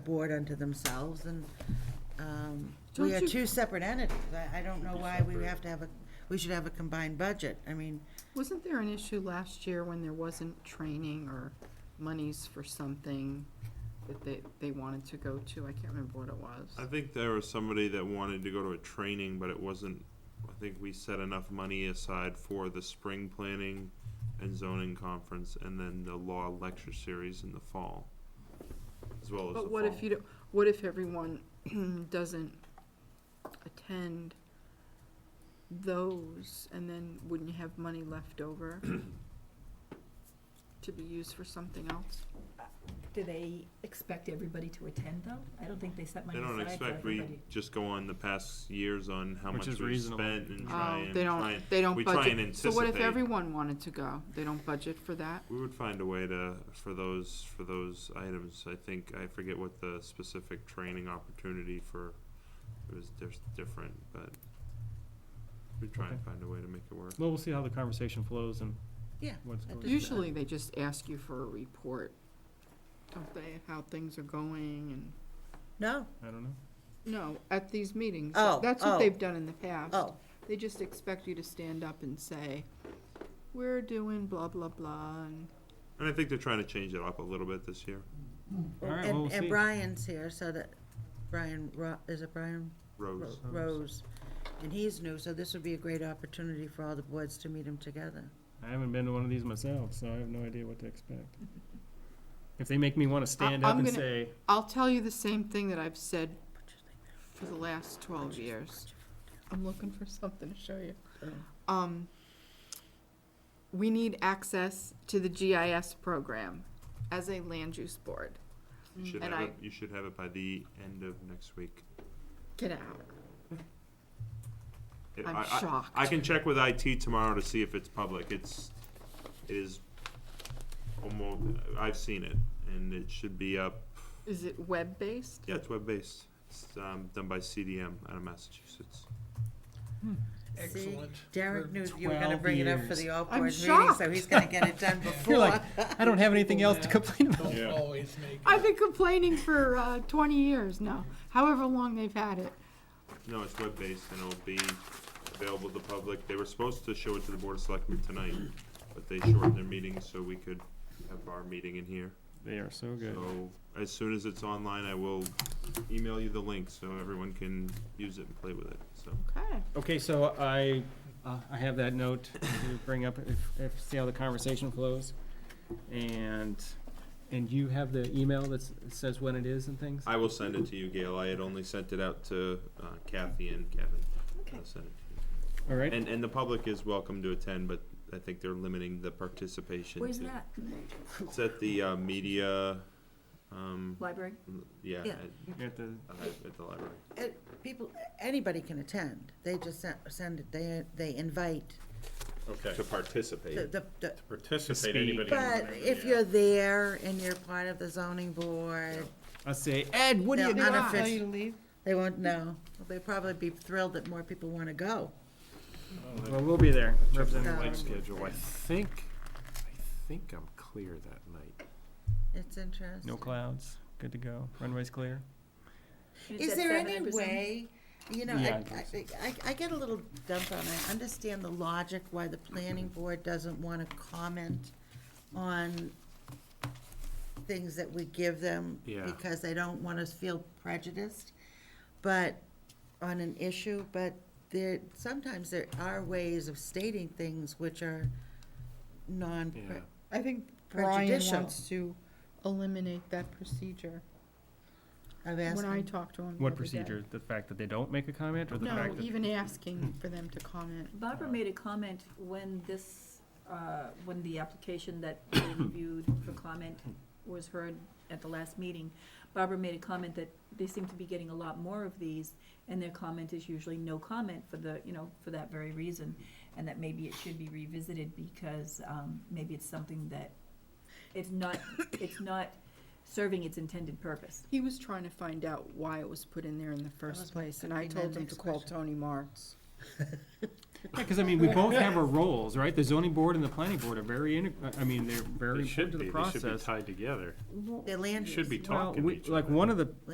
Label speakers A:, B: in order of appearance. A: board unto themselves, and um, we
B: Don't
A: are
B: you-
A: two separate entities. I, I don't know why we have to have a, we should have a combined budget. I mean,
B: Wasn't there an issue last year when there wasn't training or monies for something that they, they wanted to go to? I can't remember what it
C: I
B: was.
C: think there was somebody that wanted to go to a training, but it wasn't, I think we set enough money aside for the spring planning and zoning conference and then the law lecture series in the fall. As well as the
B: But what if
C: fall.
B: you don't, what if everyone doesn't attend those and then wouldn't you have money left over to be used for something else?
D: Do they expect everybody to attend though? I don't think they set money
C: They don't
D: aside for
C: expect, we
D: everybody.
C: just go on the past years on how
E: Which
C: much
E: is
C: we've
E: reasonable.
C: spent and try
B: Oh,
C: and
B: they
C: try
B: don't,
C: and,
B: they don't
C: we try and
B: budget. So what if
C: anticipate.
B: everyone wanted to go? They don't budget for that?
C: we would find a way to, for those, for those items, I think, I forget what the specific training opportunity for, it was dis- different, but we'd try and
E: Okay.
C: find a way to make it work.
E: Well, we'll see how the conversation flows and
A: yeah.
E: what's going on.
A: Does that-
B: Usually they just ask you for a report, don't they, how things are going and,
A: No?
E: I don't know.
B: no, at these meetings.
A: Oh,
B: That's
A: oh.
B: what they've done in the past.
A: Oh,
B: They just expect you to stand up and say, we're doing blah, blah, blah, and
C: And I think they're trying to change it up a little bit this year.
E: All right, well,
A: and,
E: we'll
A: and
E: see.
A: Brian's here, so that, Brian, Ro- is it Brian? Ro-
C: Rose,
A: Rose. And he's new, so this would be a great opportunity for all the boards to meet him together.
E: I haven't been to one of these myself, so I have no idea what to expect. If they make me want to stand up
B: I'm
E: and
B: gonna-
E: say,
B: I'll tell you the same thing that I've said for the last twelve years. I'm looking for something to show you.
A: Oh.
B: Um, we need access to the GIS program as a land use board.
C: you should
B: And
C: have it,
B: I-
C: you should have it by the end of next week.
B: Get out.
C: It-
B: I'm
C: I- I-
B: shocked.
C: I can check with IT tomorrow to see if it's public, it's, it is almost, I've seen it, and it should be up,
B: Is it web-based?
C: yeah, it's web-based. It's, um, done by CDM out of Massachusetts.
A: See,
F: Excellent.
A: Derek
F: For
A: knew you were gonna
E: 12
A: bring it up for
E: years.
A: the all
B: I'm
A: board meeting, so
B: shocked.
A: he's gonna get it done before.
E: you're like, I don't have anything else to complain about.
F: Don't
C: Yeah.
F: always make.
B: I've been complaining for uh, 20 years now, however long they've had it.
C: No, it's web-based and it'll be available to the public. They were supposed to show it to the Board of Selectmen tonight, but they shortened their meeting so we could have our meeting in here.
E: They are so good.
C: So as soon as it's online, I will email you the link so everyone can use it and play with it, so.
B: Okay.
E: Okay, so I, uh, I have that note to bring up, if, if, see how the conversation flows. And, and you have the email that says when it is and things?
C: I will send it to you, Gail. I had only sent it out to uh, Kathy and Kevin.
D: Okay.
C: I'll send it to
E: All
C: you.
E: right,
C: And, and the public is welcome to attend, but I think they're limiting the participation.
D: Where's
C: to-
D: that?
C: It's at the uh, media, um,
D: Library?
C: yeah,
A: Yeah.
C: at-
E: at the,
C: Uh, at the library.
A: it- people, anybody can attend. They just sen- send it, they, they invite
G: Okay,
C: To
G: to
A: the,
C: participate.
A: the, the-
G: participate,
E: Speed.
G: anybody.
A: but
G: can-
A: if
G: yeah.
A: you're there and you're part of the zoning board,
E: I say, Ed, what do you
A: They'll
E: do?
A: unoffend-
E: Tell you to leave?
A: they won't know. They'll probably be thrilled that more people wanna go. Um,
E: Well, we'll be there,
A: the
E: representing.
A: light
G: Schedule, I think, I think I'm clear that night.
A: It's interesting.
E: No clouds, good to go, runway's clear.
A: Is there any way, you know,
E: Yeah,
A: I,
E: I think
A: I, I- I get a little dumped on, it. I understand the logic why the planning
G: Mm-hmm.
A: board doesn't wanna comment on things that we give them.
G: Yeah.
A: Because they don't want us feel prejudiced, but, on an issue, but there, sometimes there are ways of stating things which are non.
G: Yeah.
B: I think Brian
A: Prejudicial.
B: wants to eliminate that procedure.
A: I've
B: When I
A: asked,
B: talked to him the
E: What
B: other day.
E: procedure? The fact that they don't make a comment or the
B: No,
E: fact that?
B: even asking for them to comment.
D: Barbara made a comment when this, uh, when the application that we reviewed for comment was heard at the last meeting. Barbara made a comment that they seem to be getting a lot more of these, and their comment is usually no comment for the, you know, for that very reason. And that maybe it should be revisited because, um, maybe it's something that, it's not, it's not serving its intended purpose.
B: He was trying to find out why it was put in there in the first
A: was my-
B: place, and
A: that'd
B: I
A: be my
B: told him to
A: next
B: call
A: question.
B: Tony Marks.
E: Because, I mean, we both have our roles, right? The zoning board and the planning board are very, integ- I mean, they're very
G: They should
E: important to
G: be,
E: the
G: they should be
E: process.
G: tied together.
A: Their land
G: Should
A: use.
G: be
E: Well,
G: talking to
E: we,
G: each other.
E: like, one of the